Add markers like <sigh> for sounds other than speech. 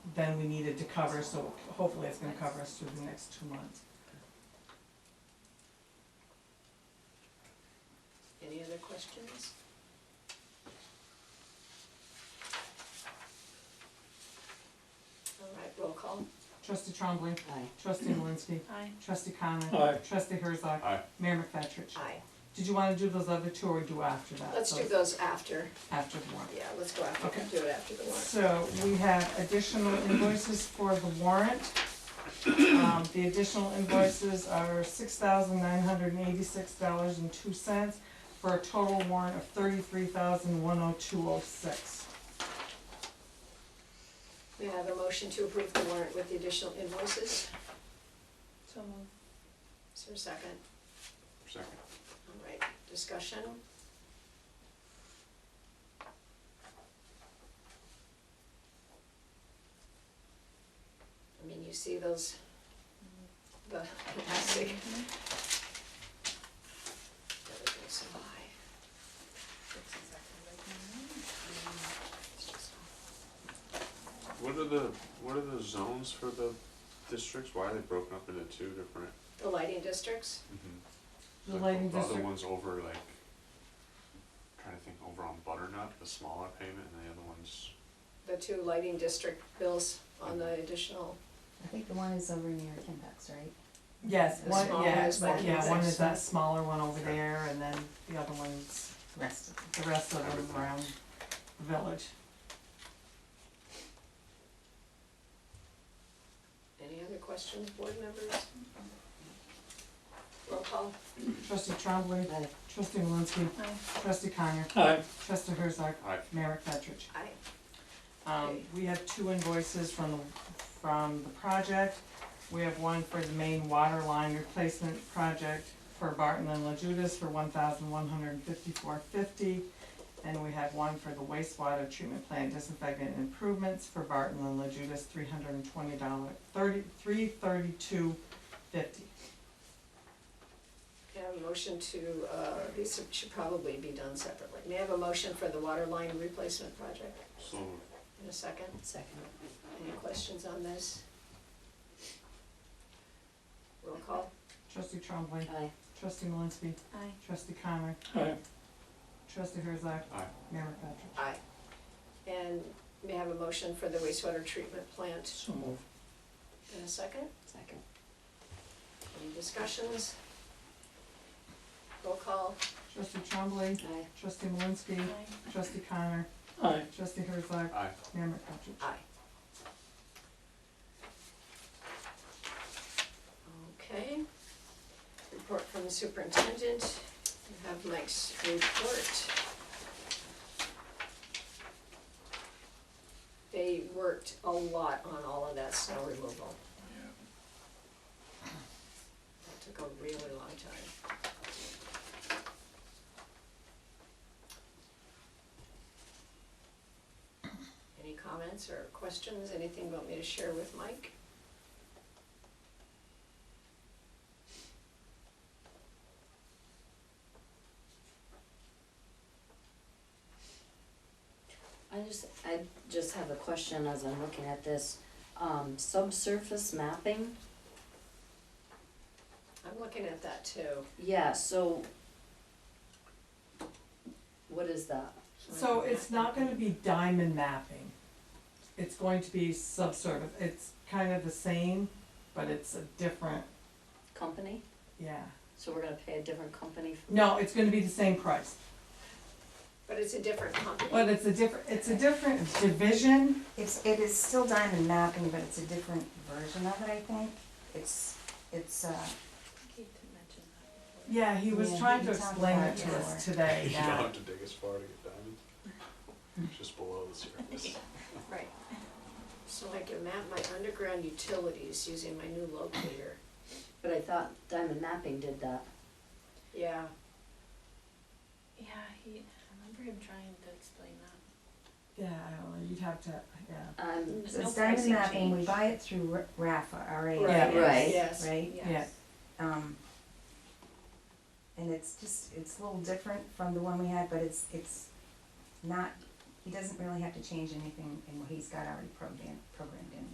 then we needed to cover, so hopefully it's gonna cover us through the next two months. Any other questions? All right, roll call. Trustee Trombley. Aye. Trustee Malinsky. Aye. Trustee Connor. Aye. Trustee Herzog. Aye. Mayor McFetrich. Aye. Did you wanna do those other two or do after that? Let's do Those those after, After the warrant. yeah, let's go after, Okay. do it after the warrant. So we have additional invoices for the warrant. Um, the additional invoices are six thousand nine hundred and eighty-six dollars and two cents for a total warrant of thirty-three thousand one oh two oh six. We have a motion to approve the warrant with the additional invoices. So moved. Is there a second? Second. All right, discussion? I mean, you see those, the plastic. Everything's so high. It's just- What are the, what are the zones for the districts? Why are they broken up into two different? The lighting districts, The Like, lighting other district, one's over like, trying to think, over on Butternut, the smaller payment, and the other one's, the two lighting district bills on the additional, I think the one is over near Kimbeck's, right? yes, The one, smaller yeah, is one- like yeah, one is this. that smaller one over there, and then the other one's, The rest of them. the rest of them Everything. around the village. any other questions, board members? Roll call. Trustee Trombley. Aye. Trustee Malinsky. Trustee Connor. Aye. Trustee Herzog. Aye. Mayor McFetrich. Aye. Um, we have two invoices from, the- from the project. We have one for the main water line replacement project for Barton and La Judas for one thousand one hundred and fifty-four fifty. And we have one for the wastewater treatment plant disinfectant improvements for Barton and La Judas, three hundred and twenty dollar, thirty, three thirty-two fifty. May I have a motion to, uh, these should probably be done separately. May I have a motion for the water line replacement project so, in a second? Second. Any questions on this? Roll call. Trustee Trombley. Aye. Trustee Malinsky. Aye. Trustee Connor. Aye. Trustee Herzog. Aye. Mayor McFetrich. Aye. And may I have a motion for the wastewater treatment plant So moved. in a second? Second. Any discussions? Roll call. Trustee Trombley. Aye. Trustee Malinsky. Trustee Connor. Aye. Trustee Herzog. aye. Mayor McFetrich. Aye. Okay. Report from the superintendent. You have Mike's report. They worked a lot on all of that snow removal. That took a really long time. Any comments or questions? Anything you want me to share with Mike? I just, I just have a question as I'm looking at this, um, subsurface mapping, I'm looking at that too. yeah, so. What is that? So it's not gonna be diamond mapping. It's going to be subsurface, it's kind of the same, but it's a different, Company? yeah. So we're gonna pay a different company for? No, it's gonna be the same price, But it's a different company. but it's a different, it's a different division, It's, it is still diamond mapping, but it's a different version of it, I think. It's, it's, uh, yeah, he was Yeah, trying he to talked explain about it to it us <laughs> before. today, You don't yeah. have to dig as far to get diamonds. <laughs> It's Just below the surface. Right. So I can map my underground utilities using my new locator. But I thought Diamond Mapping did that. Yeah, Yeah, he. I remember him trying to explain that. Yeah, I don't know, you'd have to, yeah, Um, There's so no it's Mm, diamond pricing mapping, we change. buy it through R- Rafa, R A F A, Yeah, right? right. Yes. Yes. Um, and it's just, it's a little different from the one we had, but it's, it's not, he doesn't really have to change anything in what he's got already programmed, programmed in.